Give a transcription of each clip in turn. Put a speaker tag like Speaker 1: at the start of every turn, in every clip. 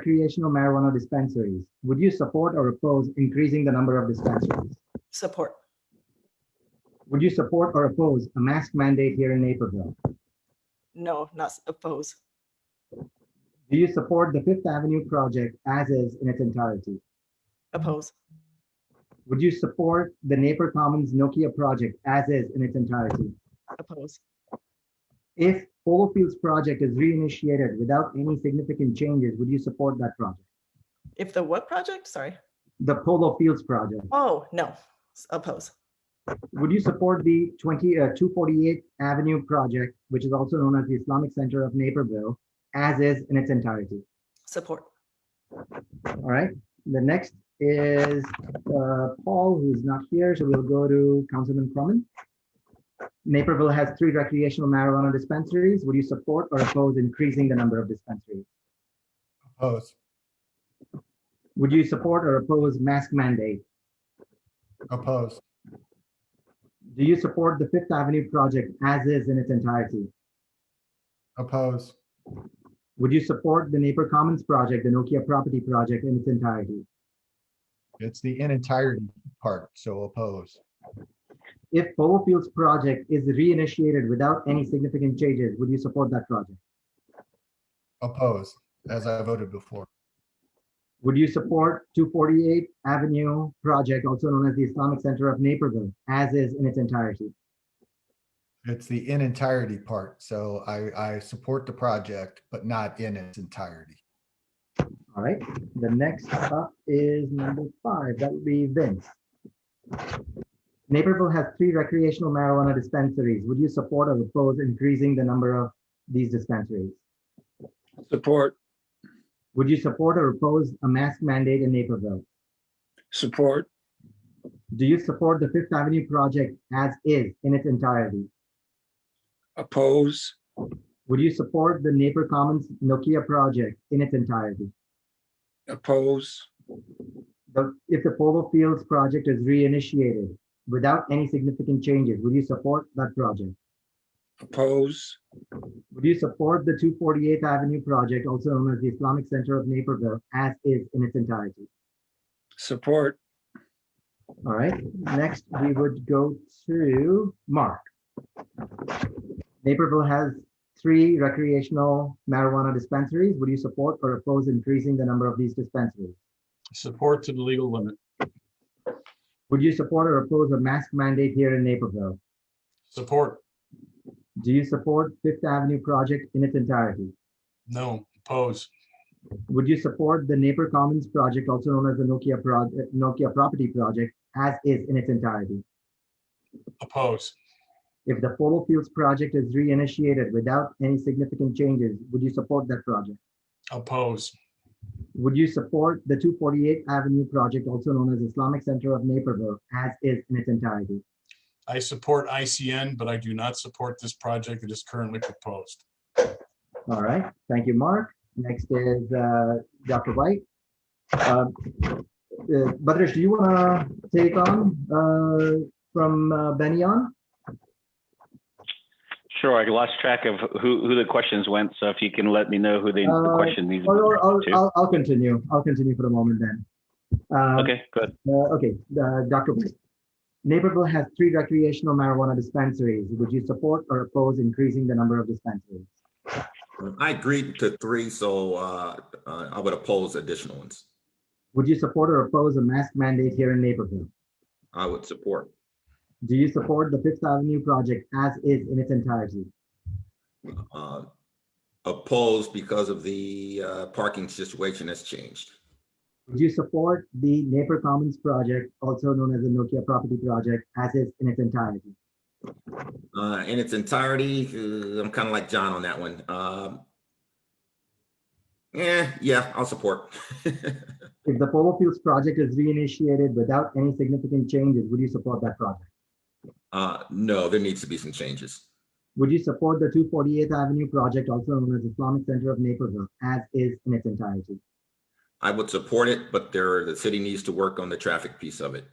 Speaker 1: recreational marijuana dispensaries. Would you support or oppose increasing the number of dispensaries?
Speaker 2: Support.
Speaker 1: Would you support or oppose a mask mandate here in Naperville?
Speaker 2: No, not s- oppose.
Speaker 1: Do you support the Fifth Avenue project as is in its entirety?
Speaker 2: Oppose.
Speaker 1: Would you support the Napier Commons Nokia project as is in its entirety?
Speaker 2: Oppose.
Speaker 1: If Polo Fields project is reinitiated without any significant changes, would you support that project?
Speaker 2: If the what project? Sorry.
Speaker 1: The Polo Fields project?
Speaker 2: Oh, no. S- Oppose.
Speaker 1: Would you support the 20, uh, 248 Avenue project, which is also known as the Islamic Center of Naperville, as is in its entirety?
Speaker 2: Support.
Speaker 1: All right. The next is uh, Paul, who's not here, so we'll go to Councilman Croman. Naperville has three recreational marijuana dispensaries. Would you support or oppose increasing the number of dispensaries?
Speaker 3: Oppose.
Speaker 1: Would you support or oppose mask mandate?
Speaker 3: Oppose.
Speaker 1: Do you support the Fifth Avenue project as is in its entirety?
Speaker 3: Oppose.
Speaker 1: Would you support the Napier Commons project, the Nokia property project in its entirety?
Speaker 3: It's the in entirety part, so oppose.
Speaker 1: If Polo Fields project is reinitiated without any significant changes, would you support that project?
Speaker 3: Oppose, as I voted before.
Speaker 1: Would you support 248 Avenue project, also known as the Islamic Center of Naperville, as is in its entirety?
Speaker 3: It's the in entirety part, so I, I support the project, but not in its entirety.
Speaker 1: All right, the next up is number five, that would be Vince. Naperville has three recreational marijuana dispensaries. Would you support or oppose increasing the number of these dispensaries?
Speaker 4: Support,
Speaker 1: Would you support or oppose a mask mandate in Naperville?
Speaker 4: support,
Speaker 1: Do you support the Fifth Avenue project as is in its entirety?
Speaker 4: oppose,
Speaker 1: Would you support the Napier Commons Nokia project in its entirety?
Speaker 4: oppose,
Speaker 1: The- If the Polo Fields project is reinitiated without any significant changes, would you support that project?
Speaker 4: oppose,
Speaker 1: Would you support the 248th Avenue project, also known as the Islamic Center of Naperville, as is in its entirety?
Speaker 4: support,
Speaker 1: All right, next we would go to Mark. Naperville has three recreational marijuana dispensaries. Would you support or oppose increasing the number of these dispensaries?
Speaker 5: Support to the legal limit.
Speaker 1: Would you support or oppose a mask mandate here in Naperville?
Speaker 5: Support.
Speaker 1: Do you support Fifth Avenue project in its entirety?
Speaker 5: No. Oppose.
Speaker 1: Would you support the Napier Commons project, also known as the Nokia project, Nokia property project, as is in its entirety?
Speaker 5: Oppose.
Speaker 1: If the Polo Fields project is reinitiated without any significant changes, would you support that project?
Speaker 5: Oppose.
Speaker 1: Would you support the 248 Avenue project, also known as Islamic Center of Naperville, as is in its entirety?
Speaker 5: I support ICN, but I do not support this project that is currently proposed.
Speaker 1: All right, thank you, Mark. Next is uh, Dr. White. Um, uh, Badresh, do you want to take on uh, from uh, Benyon?
Speaker 6: Sure, I lost track of who, who the questions went, so if you can let me know who they, the
Speaker 1: Uh,
Speaker 6: question needs.
Speaker 1: Or, or- or
Speaker 6: to.
Speaker 1: I'll, I'll continue. I'll continue for the moment then. Um,
Speaker 6: Okay, good.
Speaker 1: uh, Okay, uh, Dr. White. Naperville has three recreational marijuana dispensaries. Would you support or oppose increasing the number of dispensaries?
Speaker 7: I agreed to three, so uh, uh, I would oppose additional ones.
Speaker 1: Would you support or oppose a mask mandate here in Naperville?
Speaker 7: I would support,
Speaker 1: Do you support the Fifth Avenue project as is in its entirety?
Speaker 7: uh, oppose because of the uh, parking situation that's changed.
Speaker 1: Would you support the Napier Commons project, also known as the Nokia property project, as is in its entirety?
Speaker 7: Uh, In its entirety, uh, I'm kind of like John on that one. Um, Yeah, yeah, I'll support.
Speaker 1: If the Polo Fields project is reinitiated without any significant changes, would you support that project?
Speaker 7: Uh, No, there needs to be some changes.
Speaker 1: Would you support the 248th Avenue project, also known as Islamic Center of Naperville, as is in its entirety?
Speaker 7: I would support it, but there, the city needs to work on the traffic piece of it.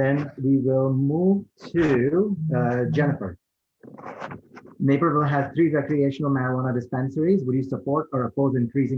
Speaker 1: Then we will move to uh, Jennifer. Naperville has three recreational marijuana dispensaries. Would you support or oppose increasing